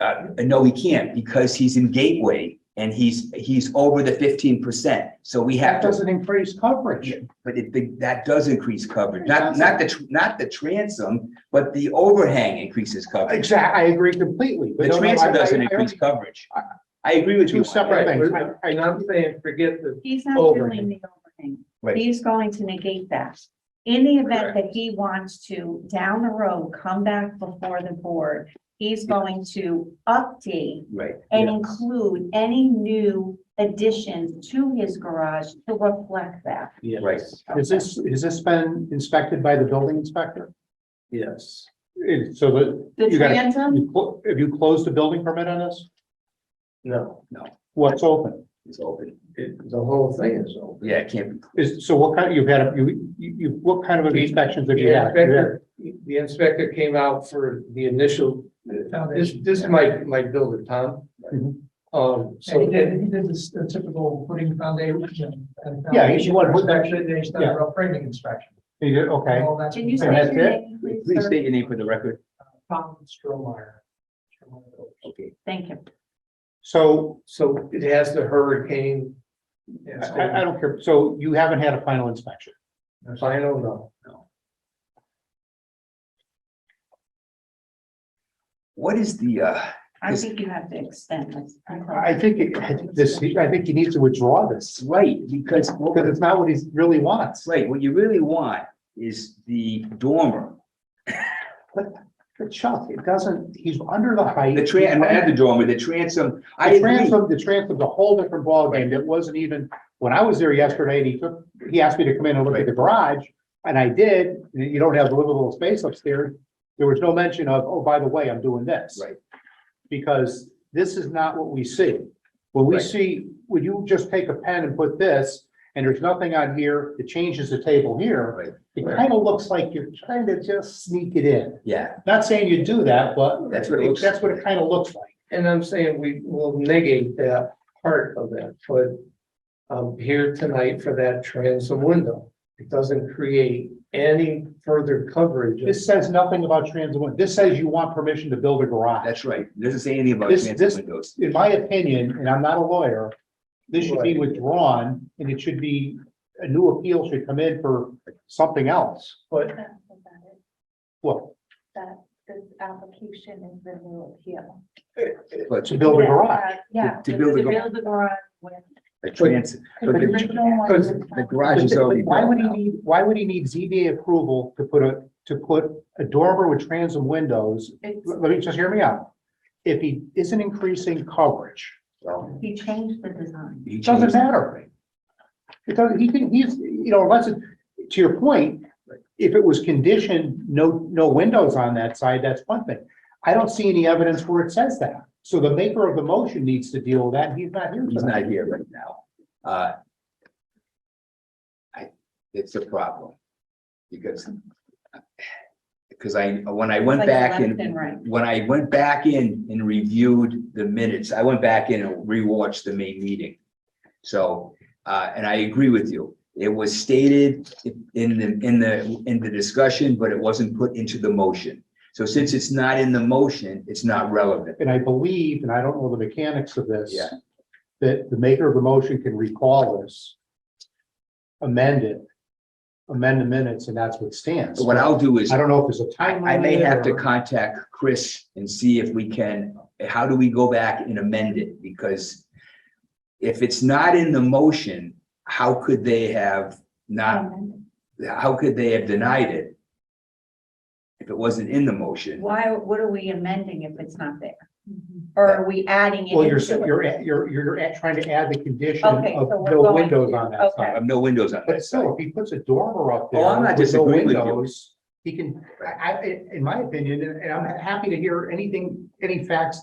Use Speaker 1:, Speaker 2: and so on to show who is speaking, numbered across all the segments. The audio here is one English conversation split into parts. Speaker 1: Uh, no, he can't because he's in Gateway and he's, he's over the fifteen percent. So we have
Speaker 2: That
Speaker 1: to,
Speaker 2: doesn't increase coverage.
Speaker 1: Yeah. but it, the- that does increase coverage,
Speaker 2: It
Speaker 1: not,
Speaker 2: doesn't.
Speaker 1: not the, tr- not the transom, but the overhang increases coverage.
Speaker 2: Exactly, I agree completely. but
Speaker 1: The
Speaker 2: no, no, I-
Speaker 1: transom doesn't
Speaker 2: I- I
Speaker 1: increase
Speaker 2: only-
Speaker 1: coverage. I agree with you.
Speaker 2: Two
Speaker 1: on that.
Speaker 2: separate things. I- I-
Speaker 3: And I'm saying, forget the,
Speaker 4: He's not
Speaker 3: Overhang.
Speaker 4: doing the overhang.
Speaker 1: Right.
Speaker 4: He's going to negate that. In the event that he wants to, down the road, come back before the board, he's going to update
Speaker 1: Right.
Speaker 4: and include any new additions to his garage to reflect that.
Speaker 1: Right.
Speaker 2: Is this, has this been inspected by the building inspector?
Speaker 3: yes.
Speaker 2: It- So that,
Speaker 4: The
Speaker 2: You got it.
Speaker 4: transom,
Speaker 2: you clo- have you closed the building permit on this?
Speaker 3: No,
Speaker 2: What's open?
Speaker 1: It's open.
Speaker 3: it, the whole thing is open.
Speaker 1: Yeah, it can't be.
Speaker 2: Is, so what kind, you've had, a- you, you, you- what kind of inspections have you
Speaker 3: The
Speaker 2: had?
Speaker 3: inspector, the inspector came out for the initial, this, this is my, my builder, Tom.
Speaker 2: Mhm.
Speaker 3: Um, so.
Speaker 5: And he did, he did this the typical putting foundation and.
Speaker 2: Yeah, he-
Speaker 5: foundation Inspection, they started a framing inspection.
Speaker 2: You did, Okay,
Speaker 5: All that's
Speaker 4: can you
Speaker 2: And
Speaker 4: say
Speaker 2: that's
Speaker 4: your
Speaker 2: it?
Speaker 4: name, please?
Speaker 1: Please
Speaker 4: sir?
Speaker 1: state your name for the record.
Speaker 5: Tom Strohmeyer.
Speaker 1: Okay.
Speaker 4: Thank you.
Speaker 2: so
Speaker 3: So it has the hurricane.
Speaker 2: I, I- I don't care. So you haven't had a final inspection?
Speaker 3: Final, no.
Speaker 1: What is the, uh,
Speaker 4: I
Speaker 1: Is-
Speaker 4: think you have to extend this.
Speaker 2: I think, it- I think this, I think he needs to withdraw this
Speaker 1: right, because,
Speaker 2: because it's not what he really wants.
Speaker 1: right, what you really want is the dormer.
Speaker 2: But Chuck, it doesn't, he's under the height.
Speaker 1: The tran, not the dormer, the transom. I
Speaker 2: The
Speaker 1: agree.
Speaker 2: transom, the transom's a whole different ballgame that wasn't even, when I was there yesterday and he took, he asked me to come in and look at the garage. And I did, you you don't have livable space upstairs. There was no mention of, oh, by the way, I'm doing this.
Speaker 1: Right.
Speaker 2: Because this is not what we see. When we
Speaker 1: Right.
Speaker 2: see, when you just take a pen and put this, and there's nothing on here, it changes the table
Speaker 1: Right.
Speaker 2: here. It kind of looks like you're trying to just sneak it in.
Speaker 1: Yeah,
Speaker 2: Not saying you do that, but
Speaker 1: That's what it looks-
Speaker 2: That's what it kind of looks like.
Speaker 3: And I'm saying we will negate that part of that, but I'm here tonight for that transom window. It doesn't create any further coverage.
Speaker 2: This says nothing about transit window. This says you want permission to build a garage.
Speaker 1: that's right. It Doesn't say anything about
Speaker 2: This- this-
Speaker 1: transom windows.
Speaker 2: In my opinion, and I'm not a lawyer, this should be withdrawn and it should be, a new appeal should come in for something else.
Speaker 3: But
Speaker 2: Well,
Speaker 4: That this application is the new appeal.
Speaker 1: But
Speaker 2: to build a garage.
Speaker 4: Yeah.
Speaker 1: To build a
Speaker 4: to
Speaker 1: gar-
Speaker 4: build the garage with.
Speaker 1: the transom, But the-
Speaker 3: because
Speaker 1: the garage is already
Speaker 2: Why
Speaker 1: built
Speaker 2: would he
Speaker 1: now.
Speaker 2: need, why would he need ZBA approval to put a, to put a dormer with transom windows?
Speaker 4: It's-
Speaker 2: Let me just hear me out. If he isn't increasing coverage,
Speaker 1: So,
Speaker 4: He changed the design.
Speaker 1: he
Speaker 2: It doesn't
Speaker 1: changed-
Speaker 2: matter. It doesn't, he can, he's, you know, unless, it- to your point, if it was conditioned, no, no windows on that side, that's one thing. I don't see any evidence where it says that. So the maker of the motion needs to deal with that. and He's not here.
Speaker 1: He's
Speaker 2: tonight.
Speaker 1: not here right now. Uh, I, it's a problem. Because because I, when I went
Speaker 4: It's like
Speaker 1: back and
Speaker 4: left and right.
Speaker 1: when I went back in and reviewed the minutes, I went back in and rewatched the main meeting. So, uh, and I agree with you. It was stated in the, in the, in the discussion, but it wasn't put into the motion. So since it's not in the motion, it's not relevant.
Speaker 2: And I believe, and I don't know the mechanics of this.
Speaker 1: Yeah.
Speaker 2: That the maker of the motion can recall this. Amend it. Amend the minutes and that's what stands.
Speaker 1: So what I'll do is,
Speaker 2: I don't know if there's a
Speaker 1: I,
Speaker 2: timeline.
Speaker 1: I may have to
Speaker 2: or-
Speaker 1: contact Chris and see if we can, how do we go back and amend it? Because if it's not in the motion, how could they have not how could they have denied it? If it wasn't in the motion,
Speaker 4: Why, what are we amending if it's not there? Or are we adding it?
Speaker 2: Well, you're,
Speaker 4: into it?
Speaker 2: you're, you're, you're at- trying to add the condition of
Speaker 4: Okay, so we're
Speaker 2: no
Speaker 4: going-
Speaker 2: windows on that
Speaker 4: okay.
Speaker 2: side.
Speaker 1: I have no windows on
Speaker 2: But
Speaker 1: that side.
Speaker 2: still, if he puts a dormer up there.
Speaker 1: Oh, I'm not
Speaker 2: with no
Speaker 1: disagreeing with you.
Speaker 2: windows, He can, I, I, in my opinion, and I'm happy to hear anything, any facts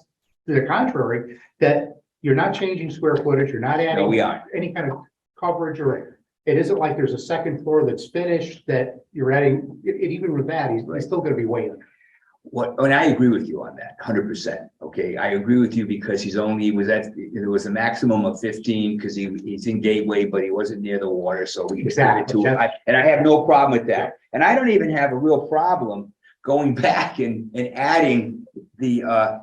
Speaker 2: to the contrary, that you're not changing square footage, you're not
Speaker 1: No,
Speaker 2: adding
Speaker 1: we aren't.
Speaker 2: any kind of coverage or it isn't like there's a second floor that's finished that you're adding, it, it- even with that, he's, he's still gonna be way under.
Speaker 1: What, and I agree with you on that, hundred percent. Okay, I agree with you because he's only, he was at, there was a maximum of fifteen because he, he's in Gateway, but he wasn't near the water, so we extended
Speaker 2: Exactly,
Speaker 1: to. I- And I have no problem with that. And I don't even have a real problem going back and, and adding the, uh,